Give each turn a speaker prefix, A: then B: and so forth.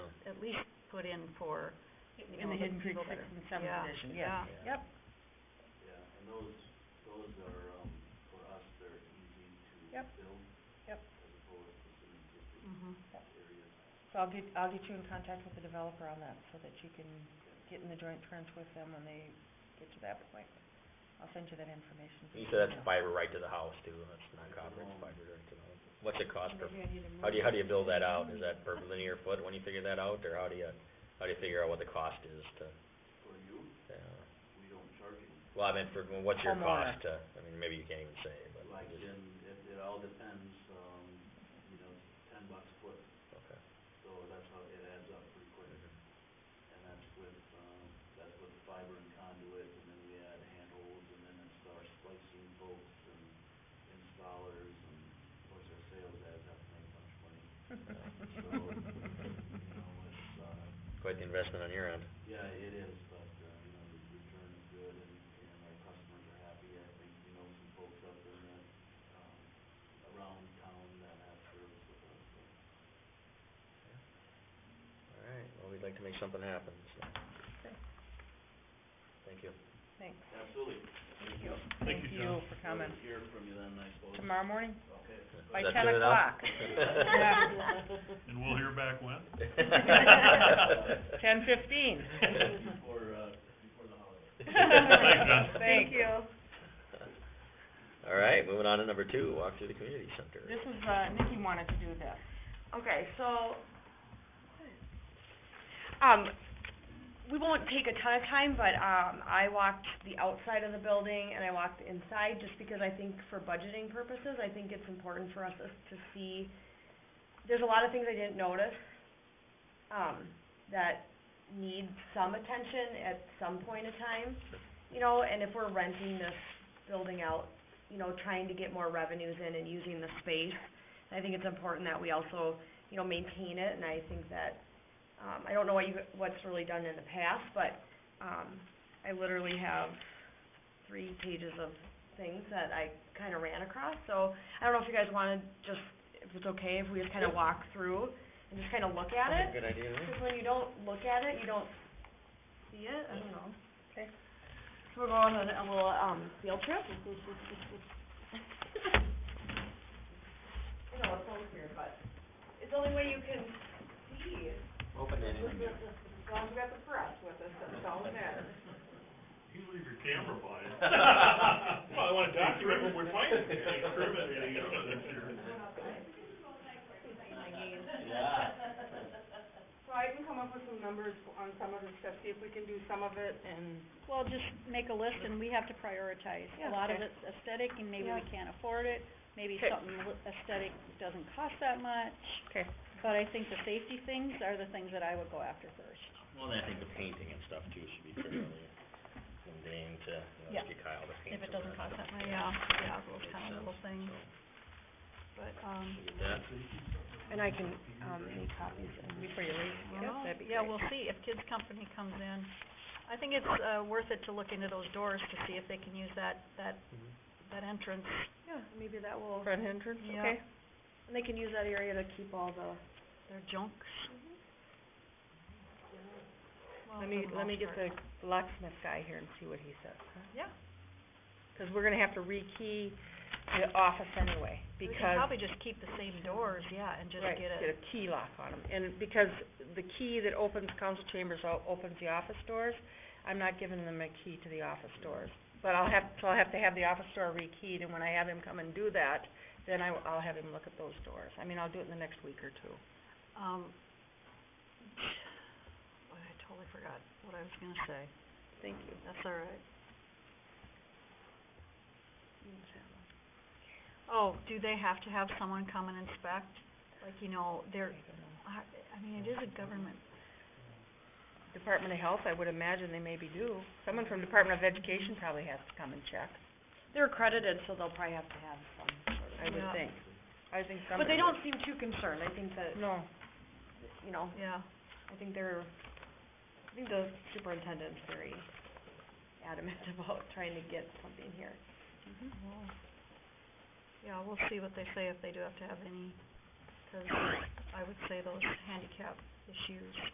A: at least put in for, you
B: in
A: know,
B: the
A: the
B: Hidden Creek
A: people that
B: Six
A: are-
B: and Seven
A: yeah,
B: Edition,
A: yeah.
B: yes, yep.
C: Yeah, and those, those are, um, for us, they're easy to
B: Yep.
C: build.
B: Yep.
C: As opposed to some existing
A: mhm.
C: areas.
B: So I'll get, I'll get you in contact with the developer on that, so that you can get in the joint trench with them when they get to that point. I'll send you that information.
D: You said that's fiber right to the house too, that's not copper, it's fiber right to the home. What's it cost per, how do you, how do you build that out? Is that per linear foot when you figure that out, or how do you, how do you figure out what the cost is to,
C: For you,
D: yeah?
C: we don't charge you.
D: Well, I meant for, what's your
B: Homeowner.
D: cost to, I mean, maybe you can't even say, but.
C: Like,
D: just-
C: in it, it all depends, um, you know, ten bucks a foot,
D: Okay.
C: so that's how it adds up pretty quick. And that's with, um, that's with fiber and conduit, and then we add handholds, and then it's our splicing bolts and installers, and of course, our sales guys have to make a bunch of money. So, you know, it's, uh,
D: Quite the investment on your end.
C: yeah, it is, but, uh, you know, the return is good and, and our customers are happy. I think, you know, some folks up in that, um, around town that have service with us, so.
D: All right, well, we'd like to make something happen, so.
B: Okay.
D: Thank you.
B: Thanks.
C: Absolutely. Thank you.
B: Thank you for coming.
C: We'll Hear from you then, I suppose.
B: Tomorrow morning,
C: Okay.
B: by
D: Is that
B: ten
D: good enough?
B: o'clock. Yeah.
E: And we'll hear back when?
B: Ten fifteen.
C: Before, uh, before the holiday.
E: Thanks, John.
B: Thank you.
D: All right, moving on to number two, walk through the community center.
B: This is, uh, Nikki wanted to do this.
F: Okay, so, um, we won't take a ton of time, but, um, I walked the outside of the building and I walked inside just because I think for budgeting purposes, I think it's important for us to see, there's a lot of things I didn't notice, um, that need some attention at some point in time, you know, and if we're renting this building out, you know, trying to get more revenues in and using the space, I think it's important that we also, you know, maintain it, and I think that, um, I don't know what you, what's really done in the past, but, um, I literally have three pages of things that I kinda ran across, so I don't know if you guys wanna just, if it's okay, if we just kinda walk through and just kinda look at it?
D: Good idea, huh?
F: Because when you don't look at it, you don't see it, I don't know.
B: Okay.
F: So we're going on a little, um, field trip. I know, it sounds weird, but it's the only way you can see.
D: Open it.
F: As long as we got the press with us, that's all that matters.
E: You leave your camera by. Well, I wanna document what we're finding, incriminating it on this here.
G: So I can come up with some numbers on some of the stuff, see if we can do some of it and
A: Well, just make a list and we have to prioritize.
G: Yeah,
A: A lot of
G: okay.
A: it's aesthetic and maybe we
G: Yeah.
A: can't afford it, maybe
G: Okay.
A: something li- aesthetic doesn't cost that much.
G: Okay.
A: But I think the safety things are the things that I would go after first.
D: Well, then I think the painting and stuff too should be fairly mundane to, you know,
A: Yeah.
D: just get Kyle to paint
A: If
D: some
A: it doesn't
D: of
A: cost that much, yeah,
D: Yeah.
A: yeah, those
D: Makes
A: kind of
D: sense,
A: little things, but, um,
D: so, get that.
F: And I can, um, make copies and.
B: Before you leave,
A: well,
B: yeah, that'd be
A: yeah,
B: great.
A: we'll see if Kids Company comes in. I think it's, uh, worth it to look into those doors to see if they can use that, that,
D: Mhm.
B: Mm-hmm.
A: that entrance.
F: Yeah, maybe that will,
B: Front entrance,
A: Yeah.
B: okay?
F: and they can use that area to keep all the
A: They're junk. Mm-hmm. Well,
B: Let
A: for
B: me,
A: the
B: let me
A: most
B: get
A: part.
B: the locksmith guy here and see what he says, huh?
A: Yeah.
B: Cause we're gonna have to rekey the office anyway,
A: We
B: because.
A: can probably just keep the same doors, yeah, and just get
B: Right, get
A: a,
B: a key lock on them, and because the key that opens council chambers o- opens the office doors, I'm not giving them a key to the office doors. But I'll have, so I'll have to have the office door rekeyed, and when I have him come and do that, then I, w- I'll have him look at those doors. I mean, I'll do it in the next week or two.
A: um, boy, I totally forgot what I was gonna say.
B: Thank you.
A: That's all right. Oh, do they have to have someone come and inspect? Like, you know, they're, I, I mean, it is a government,
B: Department of Health, I would imagine they maybe do. Someone from Department of Education probably has to come and check,
F: They're accredited, so they'll probably have to have some sort
B: I would
A: Yeah.
B: think. I think
F: of, but
B: somebody
F: they don't
B: would.
F: seem too concerned, I think that,
B: No,
F: you know,
A: yeah.
F: I think they're, I think the superintendent's very adamant about trying to get something here.
A: Well, Yeah, we'll see what they say, if they do have to have any, 'cause I would say those handicap issues